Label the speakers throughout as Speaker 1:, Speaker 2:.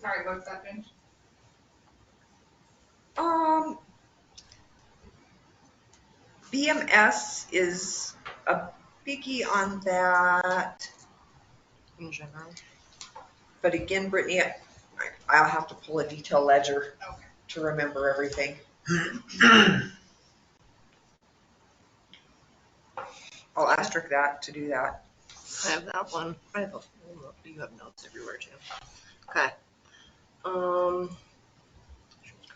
Speaker 1: Sorry, one second.
Speaker 2: Um, BMS is a biggie on that,
Speaker 3: in general.
Speaker 2: but again, Brittany, I- I'll have to pull a detail ledger
Speaker 1: Okay.
Speaker 2: to remember everything. I'll asterisk that to do that.
Speaker 3: I have that one. I have a whole note. You have notes everywhere too. Okay. Um.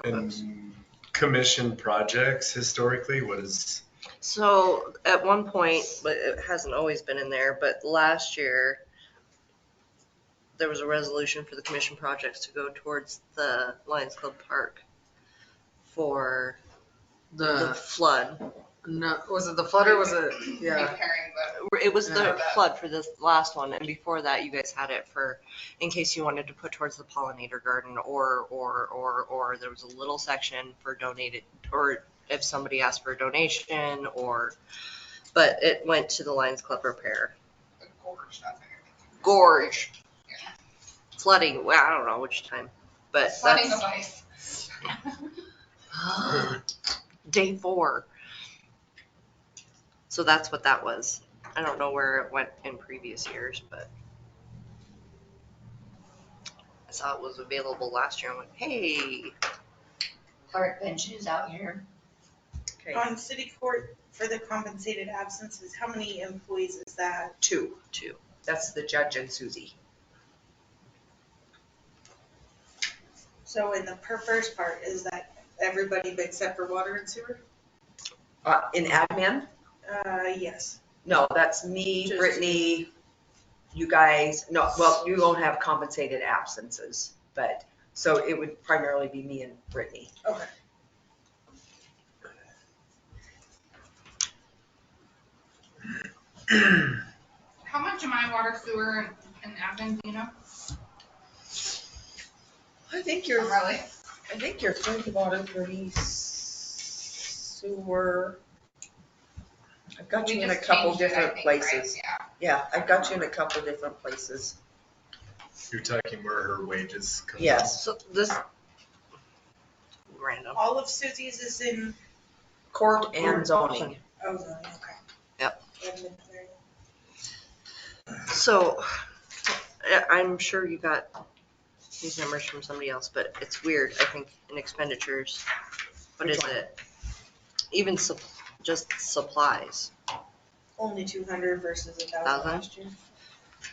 Speaker 4: And commission projects historically, what is,
Speaker 3: So at one point, but it hasn't always been in there, but last year, there was a resolution for the commission projects to go towards the Lions Club Park for the
Speaker 5: The,
Speaker 3: flood.
Speaker 5: no, was it the flood or was it, yeah,
Speaker 1: Repairing the,
Speaker 3: It was the
Speaker 1: Yeah.
Speaker 3: flood for this last one, and before that, you guys had it for, in case you wanted to put towards the pollinator garden, or, or, or, or there was a little section for donated, or if somebody asked for a donation, or, but it went to the Lions Club repair.
Speaker 1: the gorge, that's what you're
Speaker 3: gorge. Flooding, well, I don't know which time, but
Speaker 1: thinking. Flooding
Speaker 3: that's
Speaker 1: device.
Speaker 3: day four. So that's what that was. I don't know where it went in previous years, but I saw it was available last year. I went, hey,
Speaker 6: park benches out here.
Speaker 2: Okay,
Speaker 7: On Um, city court for the compensated absences, how many employees is that?
Speaker 2: two.
Speaker 3: Two.
Speaker 2: That's the judge and Susie.
Speaker 7: So in the per first part, is that everybody but except for water and sewer?
Speaker 2: Uh, in admin?
Speaker 7: Uh, yes.
Speaker 2: No, that's me,
Speaker 7: Just-
Speaker 2: Brittany, you guys, no, well, you won't have compensated absences, but, so it would primarily be me and Brittany.
Speaker 7: Okay.
Speaker 1: How much am I water sewer in Athens, do you know?
Speaker 2: I think
Speaker 1: Oh, Really?
Speaker 2: I think you're thirty water, thirty sewer. I've got
Speaker 1: We
Speaker 2: you in a
Speaker 1: just
Speaker 2: couple
Speaker 1: changed it, I
Speaker 2: different
Speaker 1: think, right?
Speaker 2: places.
Speaker 1: Yeah.
Speaker 2: Yeah, I've got you in a couple different places.
Speaker 4: you're talking where her wages come from?
Speaker 2: Yes.
Speaker 3: so this. Random.
Speaker 7: All of Susie's is in
Speaker 2: Court and zoning.
Speaker 7: Ozone, okay.
Speaker 3: Yep.
Speaker 7: And then-
Speaker 3: So, I- I'm sure you got these numbers from somebody else, but it's weird, I think, in expenditures. What
Speaker 2: Which
Speaker 3: is
Speaker 2: one?
Speaker 3: it? Even sup- just supplies.
Speaker 7: Only two hundred versus a thousand
Speaker 3: Thousand?
Speaker 7: last year.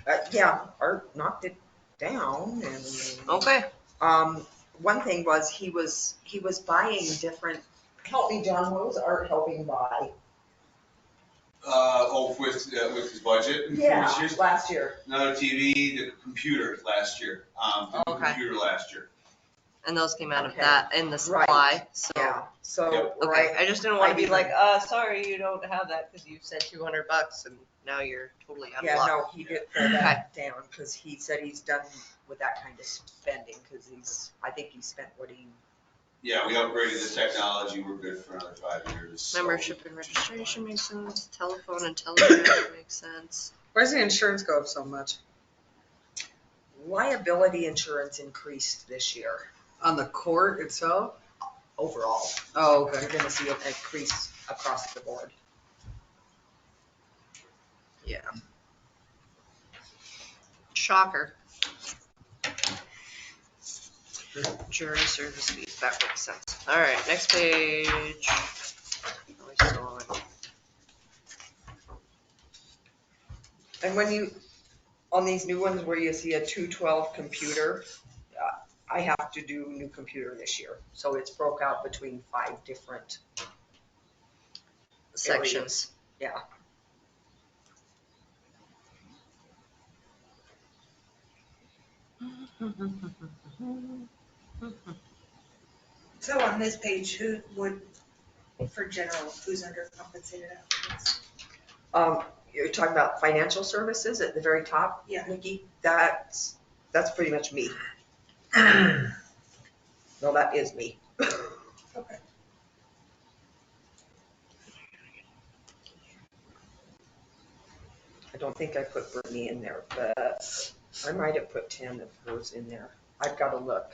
Speaker 2: Uh, yeah, Art knocked it down and.
Speaker 3: Okay.
Speaker 2: Um, one thing was he was, he was buying different, help me John, what was Art helping buy?
Speaker 8: Uh, oh, with, uh, with his budget in previous years?
Speaker 2: Last year.
Speaker 8: Another TV, the computer last year, um, the
Speaker 3: Okay.
Speaker 8: computer last year.
Speaker 3: And those came out of
Speaker 2: Okay.
Speaker 3: that and the supply, so.
Speaker 2: Yeah, so,
Speaker 8: Yep.
Speaker 3: Okay,
Speaker 2: right,
Speaker 3: I just didn't want
Speaker 2: I
Speaker 3: to be
Speaker 2: even-
Speaker 3: like, uh, sorry, you don't have that because you said two hundred bucks and now you're totally out of
Speaker 2: yeah,
Speaker 3: luck.
Speaker 2: no, he did pull that down, cause he said he's done with that kind of spending, cause he's, I think he spent what he
Speaker 8: Yeah, we upgraded the technology, we're good for another five years. so-
Speaker 3: Membership and registration makes sense, telephone and telegram makes sense.
Speaker 5: where's the insurance go up so much?
Speaker 2: Liability insurance increased this year
Speaker 5: On the court itself?
Speaker 2: overall.
Speaker 5: Oh,
Speaker 2: You're
Speaker 5: okay.
Speaker 2: gonna see an increase across the board.
Speaker 3: Shocker. Jury service fees, that makes sense. All right, next page. Oh, we're still on.
Speaker 2: And when you, on these new ones where you see a two twelve computer, uh, I have to do new computer this year. So it's broke out between five different,
Speaker 3: Sections.
Speaker 2: yeah.
Speaker 7: So on this page, who would, for general, who's under compensated absence?
Speaker 2: Um, you're talking about financial services at the very top?
Speaker 7: Yeah.
Speaker 2: Nikki, that's, that's pretty much me. No, that is me.
Speaker 7: Okay.
Speaker 2: I don't think I put Brittany in there, but I might have put ten of hers in there. I've gotta look.